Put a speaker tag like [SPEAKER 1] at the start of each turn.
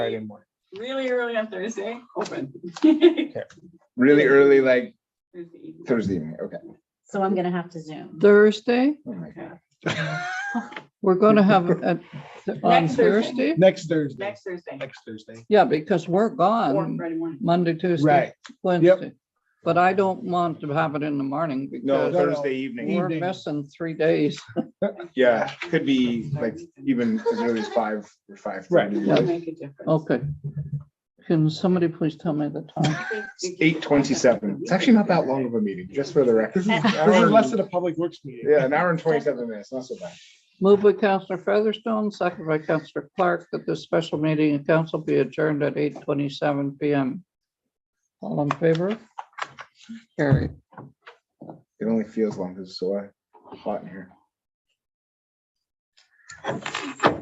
[SPEAKER 1] Friday morning.
[SPEAKER 2] really early on Thursday, open.
[SPEAKER 3] Really early, like
[SPEAKER 2] Thursday evening.
[SPEAKER 3] Thursday evening, okay.
[SPEAKER 4] So I'm gonna have to zoom.
[SPEAKER 5] Thursday,
[SPEAKER 3] Oh my God.
[SPEAKER 5] we're gonna have it at- on
[SPEAKER 2] Next Thursday.
[SPEAKER 5] Thursday?
[SPEAKER 1] Next Thursday,
[SPEAKER 2] Next Thursday,
[SPEAKER 1] next Thursday.
[SPEAKER 5] Yeah, because we're
[SPEAKER 2] or
[SPEAKER 5] gone
[SPEAKER 2] Friday morning.
[SPEAKER 5] Monday,
[SPEAKER 1] Right.
[SPEAKER 5] Tuesday, Wednesday. But I don't want to have it in the morning
[SPEAKER 1] no,
[SPEAKER 3] No,
[SPEAKER 5] because
[SPEAKER 1] no.
[SPEAKER 3] Thursday evening,
[SPEAKER 5] we're
[SPEAKER 1] evening.
[SPEAKER 5] missing three days.
[SPEAKER 3] yeah, could be like even as early as five or five.
[SPEAKER 1] Right.
[SPEAKER 2] It'll make a difference.
[SPEAKER 5] Okay. Can somebody please tell me the time?
[SPEAKER 3] Eight twenty-seven. It's actually not that long of a meeting, just for the record.
[SPEAKER 1] This is
[SPEAKER 3] An
[SPEAKER 1] this
[SPEAKER 3] hour
[SPEAKER 1] is less
[SPEAKER 3] and-
[SPEAKER 1] than a public works meeting.
[SPEAKER 3] Yeah, an hour and twenty-seven minutes, not so bad.
[SPEAKER 5] Moved by Counselor Featherstone, second by Counselor Clark, that this special meeting of council be adjourned at eight twenty-seven PM. All in favor? Carried.
[SPEAKER 3] It only feels long because it's so hot in here.